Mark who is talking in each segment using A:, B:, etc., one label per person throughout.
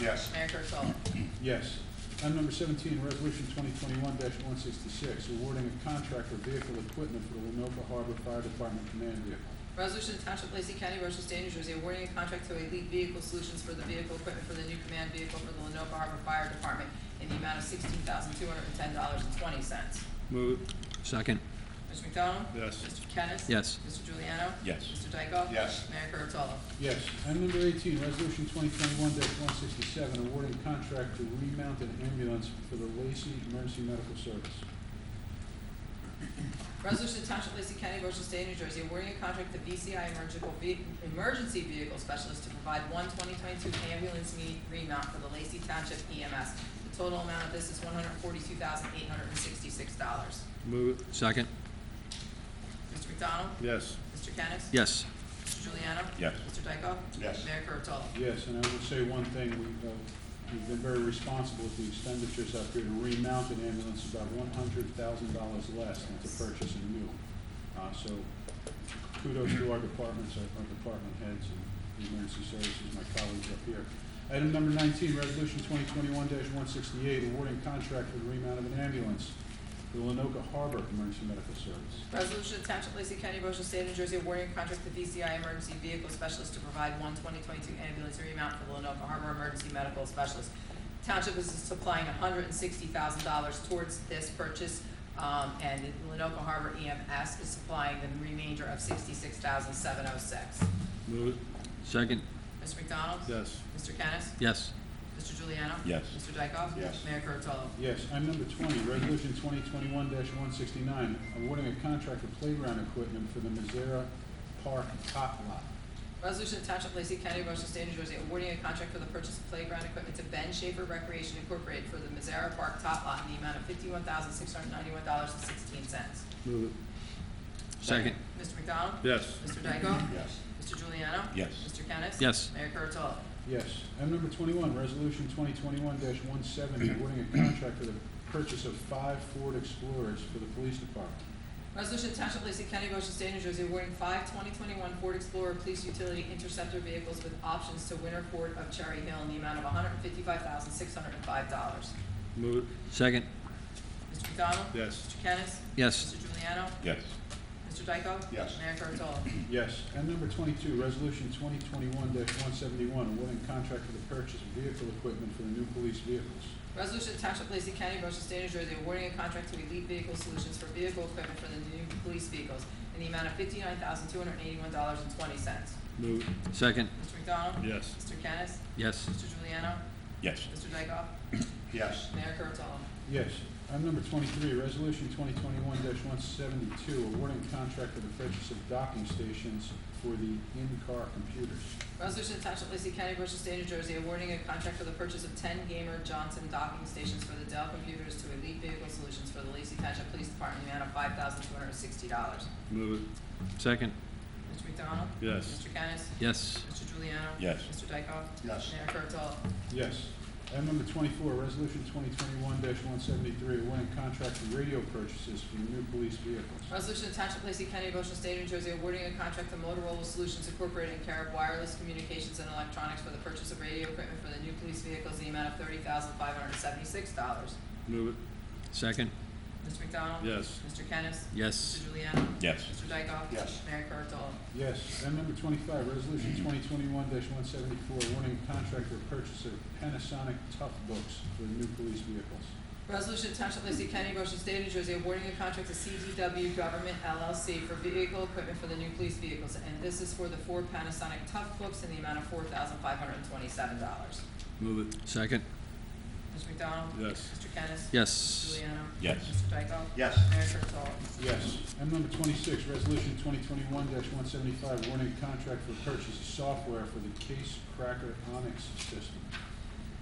A: Yes.
B: Mayor Kurtolo.
C: Yes. Item number seventeen, resolution twenty twenty-one one sixty-six, awarding a contract for vehicle equipment for the Lenoka Harbor Fire Department Command Vehicle.
B: Resolution to Township of Lacey County, Ocean State, New Jersey, awarding a contract to Elite Vehicle Solutions for the vehicle equipment for the new command vehicle for the Lenoka Harbor Fire Department in the amount of sixteen thousand two hundred and ten dollars and twenty cents.
D: Move,
E: Second,
B: Mr. McDonald?
A: Yes.
B: Mr. Kennis?
E: yes.
B: Mr. Juliano?
D: Yes.
B: Mr. Dykoff?
A: Yes.
B: Mayor Kurtolo.
C: Yes. Item number eighteen, resolution twenty twenty-one one sixty-seven, awarding contract to remount an ambulance for the Lacey Emergency Medical Service.
B: Resolution to Township of Lacey County, Ocean State, New Jersey, awarding a contract to VCI Emergical Ve- Emergency Vehicle Specialist to provide one 2022 ambulance me- remount for the Lacey Township EMS. The total amount of this is $142,866.
D: move,
E: Second,
B: Mr. McDonald?
A: Yes.
B: Mr. Kennis?
E: yes.
B: Mr. Juliano?
D: Yes.
B: Mr. Dykoff?
A: Yes.
B: Mayor Kurtolo?
C: Yes, and I would say one thing, we've, uh, we've been very responsible with the expenditures out here to remount an ambulance about one hundred thousand dollars less than to purchase a new. Uh, so kudos to our departments, our, our department heads and the emergency services, my colleagues up here. Item number nineteen, resolution twenty twenty-one one sixty-eight, awarding contract for the remount of an ambulance to the Lenoka Harbor Emergency Medical Service.
B: Resolution to Township of Lacey County, Ocean State, New Jersey, awarding a contract to VCI Emergency Vehicle Specialist to provide one 2022 ambulance remount for the Lenoka Harbor Emergency Medical Specialist. Township is supplying $160,000 towards this purchase, um, and the Lenoka Harbor EMS is supplying the remainder of $66,706.
D: move,
E: Second,
B: Mr. McDonald?
D: yes.
B: Mr. Kennis?
E: yes.
B: Mr. Juliano?
D: Yes.
B: Mr. Dykoff?
A: Yes.
B: Mayor Kurtolo?
C: Yes, item number twenty, resolution twenty twenty-one one sixty-nine, awarding a contract for playground equipment for the Mizera Park Tot Lot.
B: Resolution to Township of Lacey County, Ocean State, New Jersey, awarding a contract for the purchase of playground equipment to Ben Schaefer Recreation Incorporated for the Mizarra Park Top Lot in the amount of fifty-one thousand, six hundred ninety-one dollars and sixteen cents.
D: Move it,
E: Second,
B: Mr. McDonald?
D: yes.
B: Mr. Dykoff?
A: Yes.
B: Mr. Juliano?
D: Yes.
B: Mr. Kennis?
E: Yes.
B: Mayor Kurtolo?
C: Yes, item number twenty-one, resolution twenty twenty-one one seventy, awarding a contract for the purchase of five Ford Explorers for the police department.
B: Resolution to Township of Lacey County, Ocean State, New Jersey, awarding five 2021 Ford Explorer Police Utility Interceptor vehicles with options to Winter Ford of Cherry Hill in the amount of one hundred fifty-five thousand, six hundred and five dollars.
D: Move it,
E: second,
B: Mr. McDonald?
D: yes.
B: Mr. Kennis?
E: yes.
B: Mr. Juliano?
D: Yes.
B: Mr. Dykoff?
A: Yes.
B: Mayor Kurtolo?
C: Yes, item number twenty-two, resolution twenty twenty-one one seventy-one, awarding a contract for the purchase of vehicle equipment for the new police vehicles.
B: Resolution to Township of Lacey County, Ocean State, New Jersey, awarding a contract to Elite Vehicle Solutions for vehicle equipment for the new police vehicles in the amount of fifty-nine thousand, two hundred and eighty-one dollars and twenty cents.
D: Move it,
E: Second,
B: Mr. McDonald?
D: yes.
B: Mr. Kennis?
E: yes.
B: Mr. Juliano?
D: Yes.
B: Mr. Dykoff?
A: Yes.
B: Mayor Kurtolo?
C: Yes. Item number twenty-three, resolution twenty twenty-one one seventy-two, awarding contract for the purchase of docking stations for the in-car computers.
B: Resolution to Township of Lacey County, Ocean State, New Jersey, awarding a contract for the purchase of ten Gamer Johnson docking stations for the Dell computers to Elite Vehicle Solutions for the Lacey Township Police Department in the amount of five thousand, two hundred and sixty dollars.
D: Move it,
E: Second,
B: Mr. McDonald?
D: yes.
B: Mr. Kennis?
E: yes.
B: Mr. Juliano?
D: Yes.
B: Mr. Dykoff?
A: Yes.
B: Mayor Kurtolo?
C: Yes. Item number twenty-four, resolution twenty twenty-one one seventy-three, awarding contract for radio purchases for the new police vehicles.
B: Resolution to Township of Lacey County, Ocean State, New Jersey, awarding a contract to Motorola Solutions Incorporated in care of wireless communications and electronics for the purchase of radio equipment for the new police vehicles in the amount of thirty thousand five hundred and seventy-six dollars.
D: Move
E: Second,
B: Mr. McDonald?
D: it, yes.
B: Mr. Kennis?
E: yes.
B: Mr. Juliano?
D: Yes.
B: Mr. Dykoff?
A: Yes.
B: Mayor Kurtolo?
C: Yes. Item number twenty-five, resolution twenty twenty-one one seventy-four, awarding contract for purchase of Panasonic Tough Books for the new police vehicles.
B: Resolution to Township of Lacey County, Ocean State, New Jersey, awarding a contract to CDW Government LLC for vehicle equipment for the new police vehicles, and this is for the four Panasonic Tough Books in the amount of four thousand five hundred and twenty-seven dollars.
D: Move it,
E: Second,
B: Mr. McDonald?
D: yes.
B: Mr. Kennis?
E: yes.
B: Juliano?
D: Yes.
B: Mr. Dykoff?
A: Yes.
B: Mayor Kurtolo?
C: Yes. Item number twenty-six, resolution twenty twenty-one one seventy-five, warning contract for purchase of software for the Case Cracker Onyx system.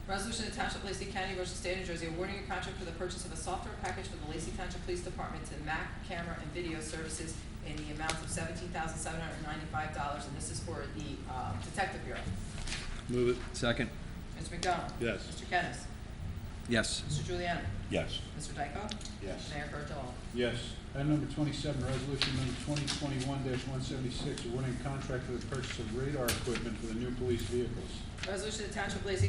B: Resolution to Township of Lacey County, Ocean State, New Jersey, awarding a contract for the purchase of a software package for the Lacey Township Police Department to MAC Camera and Video Services in the amount of seventeen thousand seven hundred ninety-five dollars, and this is for the uh, Detective Bureau.
D: Move it,
E: Second,
B: Mr. McDonald?
D: yes.
B: Mr. Kennis?
E: yes.
B: Mr. Juliano?
D: Yes.
B: Mr. Dykoff?
A: Yes.
B: Mayor Kurtolo?
C: Yes. Item number twenty-seven, resolution number twenty twenty-one one seventy-six, warning contract for the purchase of radar equipment for the new police vehicles.
B: Resolution to Township of Lacey